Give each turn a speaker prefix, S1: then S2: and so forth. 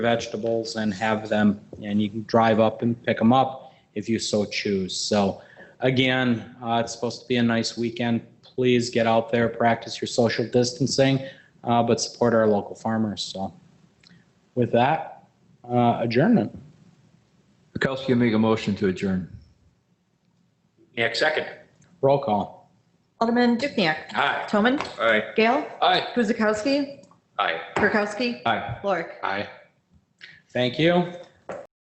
S1: vegetables and have them, and you can drive up and pick them up if you so choose. So again, uh, it's supposed to be a nice weekend. Please get out there, practice your social distancing, uh, but support our local farmers. So with that, uh, adjournment.
S2: Kirkowski will make a motion to adjourn.
S3: Dukenyak, second.
S1: Roll call.
S4: Alderman Dukniak.
S3: Aye.
S4: Toman.
S3: Aye.
S4: Gale.
S3: Aye.
S4: Guzekowski.
S3: Aye.
S4: Kirkowski.
S2: Aye.
S4: Lorik.
S3: Aye.
S1: Thank you.